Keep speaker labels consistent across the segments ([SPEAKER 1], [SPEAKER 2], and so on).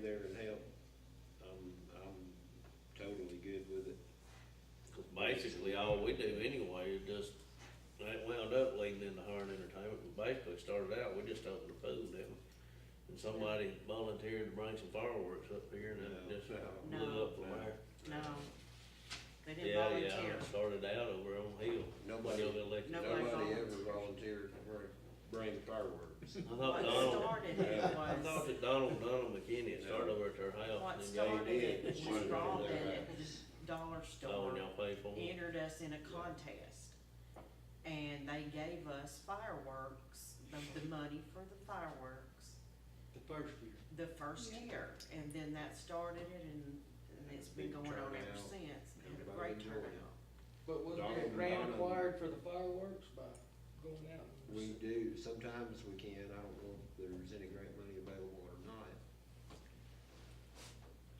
[SPEAKER 1] there and help, I'm, I'm totally good with it.
[SPEAKER 2] Because basically, all we do anyway is just, that wound up leading into hiring entertainment, but basically started out, we just opened a pool, didn't we? And somebody volunteered to bring some fireworks up here and then it just blew up from there.
[SPEAKER 3] No, they didn't
[SPEAKER 2] Yeah, yeah,
[SPEAKER 3] volunteer.
[SPEAKER 2] it started out over on Hill.
[SPEAKER 1] Nobody-
[SPEAKER 2] When y'all got elected.
[SPEAKER 3] Nobody
[SPEAKER 1] Nobody ever
[SPEAKER 3] volunteers.
[SPEAKER 1] volunteered to bring- bring fireworks.
[SPEAKER 2] I thought
[SPEAKER 3] What
[SPEAKER 2] Donald,
[SPEAKER 3] started it
[SPEAKER 1] Yeah,
[SPEAKER 2] I thought
[SPEAKER 3] was,
[SPEAKER 2] that Donald, Donald McKinney had started
[SPEAKER 1] No.
[SPEAKER 2] over at their house.
[SPEAKER 3] what
[SPEAKER 2] and then y'all-
[SPEAKER 3] started it
[SPEAKER 1] did.
[SPEAKER 3] was
[SPEAKER 1] Sure.
[SPEAKER 3] Robin
[SPEAKER 1] Yeah.
[SPEAKER 3] at the dollar
[SPEAKER 2] Oh, and y'all
[SPEAKER 3] store
[SPEAKER 2] paid for it?
[SPEAKER 3] entered us in a contest. And they gave us fireworks, the, the money for the fireworks,
[SPEAKER 4] The first year.
[SPEAKER 3] the first year. And then that started it and, and it's been
[SPEAKER 1] Big
[SPEAKER 3] going on ever
[SPEAKER 1] turnout.
[SPEAKER 3] since. Had a
[SPEAKER 1] Everybody
[SPEAKER 3] great
[SPEAKER 1] enjoyed it.
[SPEAKER 3] turnout.
[SPEAKER 4] But was
[SPEAKER 1] Donald
[SPEAKER 4] that
[SPEAKER 1] and
[SPEAKER 4] grant
[SPEAKER 1] Donald.
[SPEAKER 4] acquired for the fireworks by going out? and-
[SPEAKER 1] We do, sometimes we can, I don't know if there's any grant money available or not.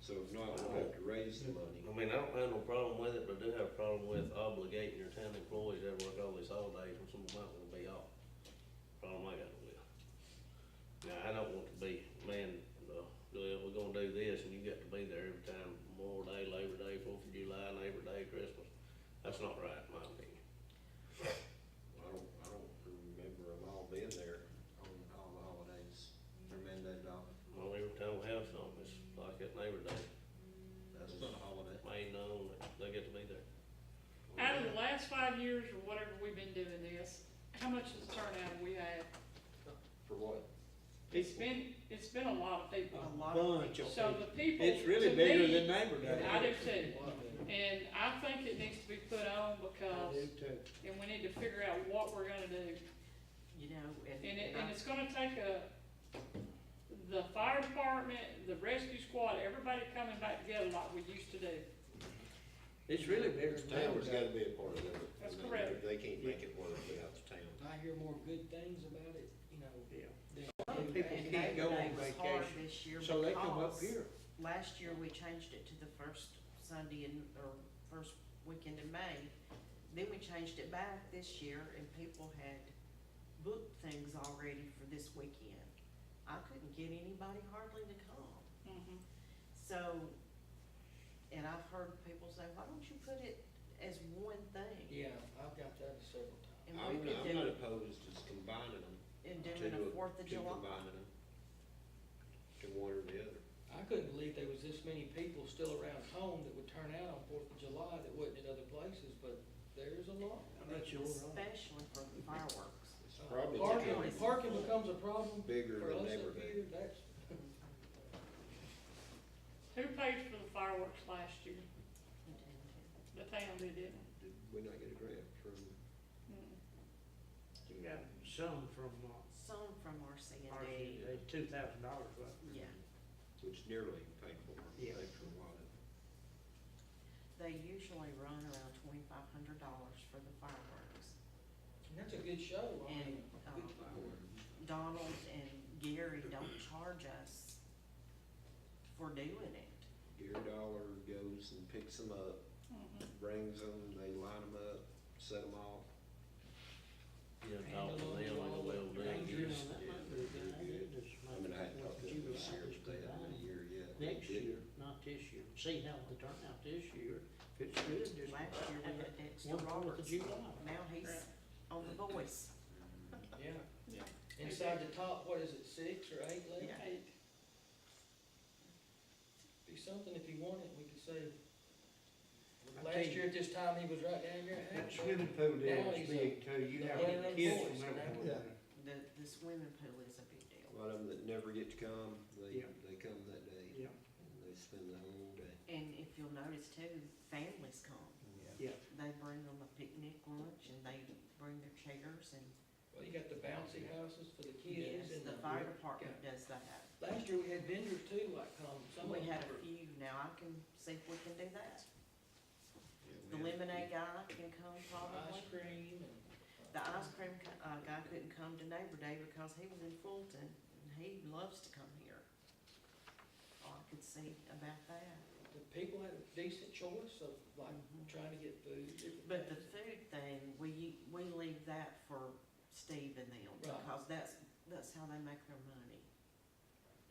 [SPEAKER 1] So if not, we'll have to raise the money.
[SPEAKER 2] I mean, I don't have no problem with it, but I do have a problem with obligating your town employees that work all these holidays when some of them might wanna be off. Problem I got with. Now, I don't want to be, man, uh, well, we're gonna do this and you got to be there every time, Memorial Day, Labor Day, Fourth of July, Labor Day, Christmas. That's not right, in my opinion.
[SPEAKER 1] I don't, I don't remember them all being there on all the holidays, they're mandated off.
[SPEAKER 2] Well, every time we have something, it's like at Labor Day,
[SPEAKER 1] That's not a holiday.
[SPEAKER 2] made known that they get to be there.
[SPEAKER 5] Out of the last five years or whatever we've been doing this, how much is the turnout we had?
[SPEAKER 1] For what?
[SPEAKER 5] It's been, it's been a lot of
[SPEAKER 4] A
[SPEAKER 5] people.
[SPEAKER 3] lot of
[SPEAKER 4] bunch of
[SPEAKER 5] So the
[SPEAKER 4] people.
[SPEAKER 5] people.
[SPEAKER 4] It's really
[SPEAKER 5] to
[SPEAKER 4] bigger
[SPEAKER 5] me-
[SPEAKER 4] than Neighbor Day.
[SPEAKER 5] I do too.
[SPEAKER 4] What the-
[SPEAKER 5] And I think it needs to be put
[SPEAKER 4] I
[SPEAKER 5] on
[SPEAKER 4] do
[SPEAKER 5] because,
[SPEAKER 4] too.
[SPEAKER 5] and we need to figure out what we're gonna do.
[SPEAKER 3] You know, and.
[SPEAKER 5] And it,
[SPEAKER 3] I-
[SPEAKER 5] and it's gonna take a, the fire department, the rescue squad, everybody coming back together like we used to do.
[SPEAKER 4] It's really bigger than Neighbor
[SPEAKER 1] Town's gotta be
[SPEAKER 4] Day.
[SPEAKER 1] a part of it.
[SPEAKER 5] That's
[SPEAKER 1] I mean,
[SPEAKER 5] correct.
[SPEAKER 1] They can't make it work without the town.
[SPEAKER 4] I hear more good things about it, you know. Yeah. than-
[SPEAKER 3] And
[SPEAKER 4] People can't go
[SPEAKER 3] Labor
[SPEAKER 4] on
[SPEAKER 3] Day was hard
[SPEAKER 4] vacation,
[SPEAKER 3] this year
[SPEAKER 4] so they come up
[SPEAKER 3] because
[SPEAKER 4] here.
[SPEAKER 3] Last year, we changed it to the first Sunday in, or first weekend in May. Then we changed it back this year and people had booked things already for this weekend. I couldn't get anybody hardly to come.
[SPEAKER 4] Mm-hmm.
[SPEAKER 5] Mhm.
[SPEAKER 3] So, and I've heard people say, why don't you put it as one thing?
[SPEAKER 4] Yeah, I've got that several times.
[SPEAKER 3] And
[SPEAKER 1] I'm
[SPEAKER 3] we
[SPEAKER 1] not,
[SPEAKER 3] could
[SPEAKER 1] I'm not
[SPEAKER 3] do,
[SPEAKER 1] opposed to combining them.
[SPEAKER 3] and
[SPEAKER 1] to
[SPEAKER 3] doing
[SPEAKER 1] do
[SPEAKER 3] a
[SPEAKER 1] it-
[SPEAKER 3] Fourth of
[SPEAKER 1] to
[SPEAKER 3] July.
[SPEAKER 1] combining them. To one or the other.
[SPEAKER 4] I couldn't believe there was this many people still around home that would turn out on Fourth of July that wouldn't at other places, but there's a lot. I mean,
[SPEAKER 3] Especially for the fireworks.
[SPEAKER 1] It's
[SPEAKER 4] uh,
[SPEAKER 1] probably
[SPEAKER 4] Parking,
[SPEAKER 1] becoming
[SPEAKER 4] parking becomes a problem
[SPEAKER 1] Bigger
[SPEAKER 4] for
[SPEAKER 1] than
[SPEAKER 4] us
[SPEAKER 1] Neighbor
[SPEAKER 4] up
[SPEAKER 1] Day.
[SPEAKER 4] here, that's.
[SPEAKER 5] Who paid for the fireworks last year? The town did, didn't it?
[SPEAKER 1] Did we not get a grant from,
[SPEAKER 5] Mm.
[SPEAKER 6] You got some from, uh,
[SPEAKER 3] Some from RCND.
[SPEAKER 6] RCA, two thousand dollars, but
[SPEAKER 3] Yeah,
[SPEAKER 1] which nearly paid for, paid
[SPEAKER 6] Yeah.
[SPEAKER 1] for a lot of.
[SPEAKER 3] they usually run around twenty-five hundred dollars for the fireworks.
[SPEAKER 4] And that's a good show, I mean,
[SPEAKER 3] And,
[SPEAKER 4] good
[SPEAKER 3] um,
[SPEAKER 4] fireworks.
[SPEAKER 3] Donald and Gary don't charge us for doing it.
[SPEAKER 1] Deer Dollar goes and picks them up,
[SPEAKER 5] Mhm.
[SPEAKER 1] brings them, they line them up, set them off.
[SPEAKER 2] You know, talking to them, like, well, dang, you're just-
[SPEAKER 1] Yeah, they're good. I mean, I hadn't talked to them this year, but they haven't been a year yet.
[SPEAKER 6] Next
[SPEAKER 1] Did-
[SPEAKER 6] year, not this year, see how they turn out this year, if it's good, just.
[SPEAKER 3] Last year we
[SPEAKER 6] have
[SPEAKER 3] had
[SPEAKER 6] it
[SPEAKER 3] Dexter
[SPEAKER 6] one Fourth of
[SPEAKER 3] Roberts.
[SPEAKER 6] July.
[SPEAKER 3] Now
[SPEAKER 5] Right.
[SPEAKER 3] he's on The Voice.
[SPEAKER 4] Yeah.
[SPEAKER 5] Yeah.
[SPEAKER 4] Inside the top, what is it, six or eight left?
[SPEAKER 3] Yeah.
[SPEAKER 5] Eight.
[SPEAKER 4] Be something if you want it, we could say,
[SPEAKER 6] I
[SPEAKER 4] last
[SPEAKER 6] think-
[SPEAKER 4] year at this time, he was right down here. at
[SPEAKER 6] That
[SPEAKER 4] Hackett.
[SPEAKER 6] swimming pool
[SPEAKER 4] Now
[SPEAKER 6] there
[SPEAKER 4] he's
[SPEAKER 6] is
[SPEAKER 4] a-
[SPEAKER 6] big too, you have
[SPEAKER 4] Yeah, they're
[SPEAKER 6] kids
[SPEAKER 4] boys,
[SPEAKER 6] from
[SPEAKER 4] you know?
[SPEAKER 6] everywhere.
[SPEAKER 3] The, the swimming pool is a big deal.
[SPEAKER 1] A lot of them that never get to come, they,
[SPEAKER 6] Yeah.
[SPEAKER 1] they come that day,
[SPEAKER 6] Yeah,
[SPEAKER 1] and they spend the whole day.
[SPEAKER 3] And if you'll notice too, families come.
[SPEAKER 6] yeah,
[SPEAKER 3] They bring them a picnic lunch and they bring their chairs and,
[SPEAKER 4] Well, you got the bouncy houses for the
[SPEAKER 3] yes,
[SPEAKER 4] kids and
[SPEAKER 3] the fire department does that.
[SPEAKER 4] Last year, we had vendors too, like, um, some
[SPEAKER 3] We
[SPEAKER 4] of
[SPEAKER 3] had
[SPEAKER 4] them
[SPEAKER 3] a
[SPEAKER 4] were-
[SPEAKER 3] few, now I can see if we can do that.
[SPEAKER 1] Yeah, we
[SPEAKER 3] The
[SPEAKER 1] had-
[SPEAKER 3] lemonade guy can come probably.
[SPEAKER 4] ice cream and.
[SPEAKER 3] The ice cream co- uh, guy couldn't come to Neighbor Day because he was in Fulton and he loves to come here. All I could see about that.
[SPEAKER 4] uh,
[SPEAKER 3] Mm-hmm.
[SPEAKER 4] The people had a decent choice of like trying to get food. different
[SPEAKER 3] But the
[SPEAKER 4] things.
[SPEAKER 3] food thing, we, we leave that for Steve and them
[SPEAKER 4] Right.
[SPEAKER 3] because that's, that's how they make their money.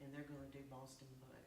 [SPEAKER 3] And they're gonna do Boston Bud.